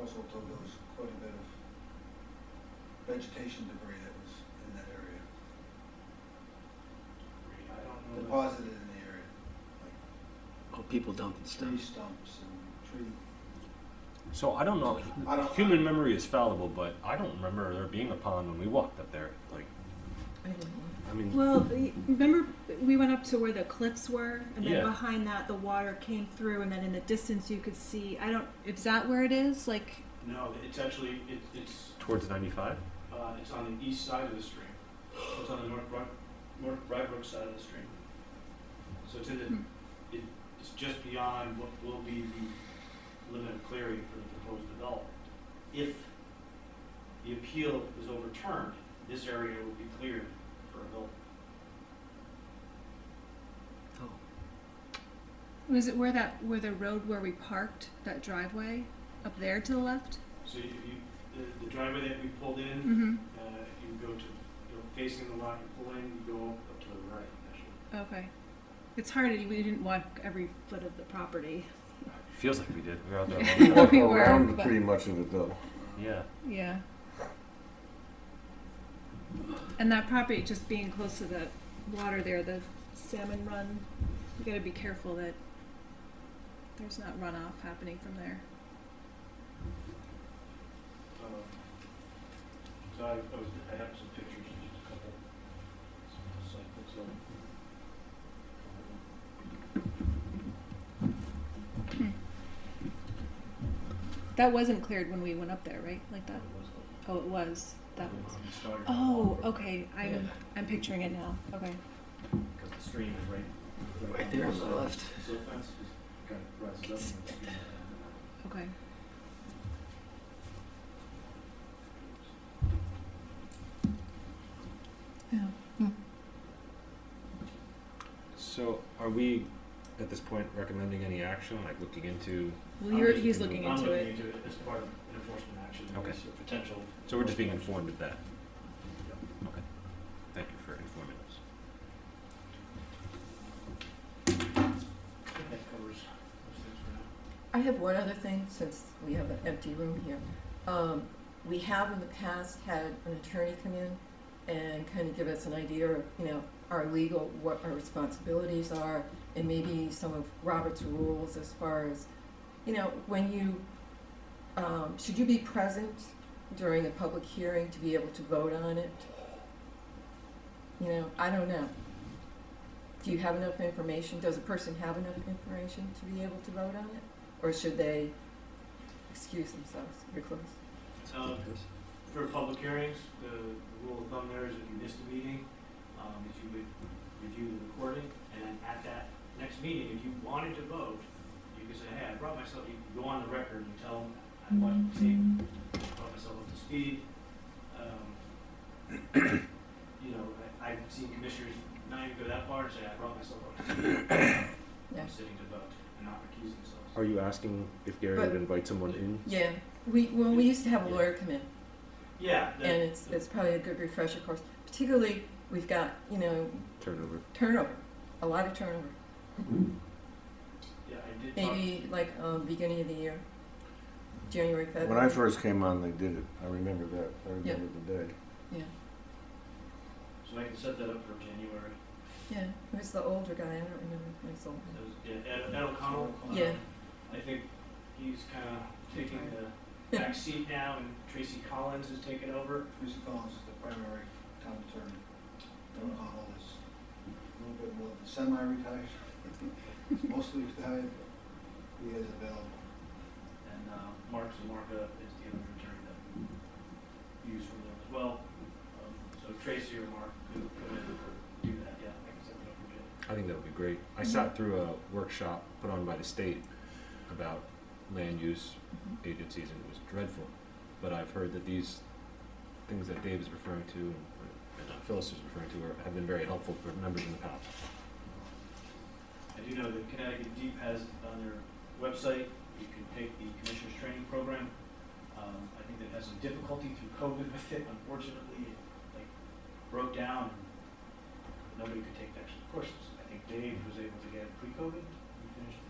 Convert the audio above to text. Mistletoe, there was quite a bit of vegetation debris that was in that area, I don't know. deposited in the area, like Oh, people dumping stuff. tree stumps and tree. So I don't know. I don't- Human memory is fallible, but I don't remember there being a pond when we walked up there. Like, I didn't know. I mean, Well, the- remember we went up to where the cliffs were, and then Yeah. behind that the water came through, and then in the distance you could see. I don't. Is that where it is? Like, No, it's actually, it, it's, towards 95? uh, it's on the east side of the stream. It's on the north, Brook- north Rybrook side of the stream. So to the, Hmm. it, it's just beyond what will be the limit of clearing for the proposed development. If the appeal is overturned, this area will be cleared for a building. Oh, was it where that where the road where we parked that driveway up there to the left? So if you, the- the driveway that we pulled in, Mm-hmm. Uh, you go to, you know, facing the lot, you pull in, you go up to the right, actually. Okay. It's hard. We didn't walk every foot of the property. Feels like we did. We were out there. We a long walked time. We were, around but- pretty much of it though. uh, yeah. Yeah. And that property just being close to the water there, the salmon run, you gotta be careful that there's not runoff happening from there. Um, So I, I was, I have some pictures, just a couple, some site pics of it. That wasn't cleared when we went up there, right? Like that? Oh, it was. That was. Oh, okay. I'm, I'm picturing it now. Okay. Because the stream is right. right there on the left. oh. So fence is kind of rises up. and it's- Okay. So are we at this point recommending any action, like looking into? Well, you're, he's looking I'm into looking it. into it as part of an enforcement action, Okay. there's a potential. So we're just being informed of that. Okay. Thank you for informing us. I think that covers those things for now. I have one other thing, since we have an empty room here. Um, we have in the past had an attorney come in and kind of give us an idea of, you know, our legal, what our responsibilities are, and maybe some of Robert's rules as far as, you know, when you, um, should you be present during a public hearing to be able to vote on it? You know, I don't know. Do you have enough information? Does a person have enough information to be able to vote on it? Or should they excuse themselves? You're close. Um, For public hearings, the the rule of thumb there is if you missed a meeting, um, if you would review the recording, and at that next meeting, if you wanted to vote, you could say, hey, I brought myself, you can go on the record and tell them, I want to take, brought myself up to speed. Um, You know, I, I've seen commissioners not even go that far and say, I brought myself up to speed. Yeah. I'm sitting to vote and not recuse themselves. Are you asking if Gary But- would invite someone in? Yeah, we, well, we used to have a lawyer come in, Yeah. that- and it's, it's probably a good refresher course. Particularly, we've got, you know, Turnover. turnover, a lot of turnover. Yeah, I did talk. Maybe like, um, beginning of the year, January, February. When I first came on, they did it. I remember that. I Yeah. remember the day. So I can set that up for January. Yeah, it was the older guy, I don't remember his name. That was, yeah, Ed, Ed O'Connell. uh, Yeah. I think he's kind of taking the back seat now, and Tracy Collins has taken over. Tracy Collins is the primary town attorney. Don Connell is a little bit more than semi-retired, mostly retired, but he is available. And uh, Mark Zamarka is the other attorney that we use from them as well. Um, So Tracy or Mark could come in and do that, yeah, I can set that up for January. I think that would be great. I sat through a workshop put on by the state about land use agencies, and it was dreadful. But I've heard that these things that Dave is referring to and and Phyllis is referring to are, have been very helpful for members in the past. I do know that Connecticut Deep has on their website, you can take the commissioner's training program. Um, I think they've had some difficulty through COVID with it, unfortunately, it like broke down. and Nobody could take the actual courses. I think Dave was able to get it pre-COVID, he finished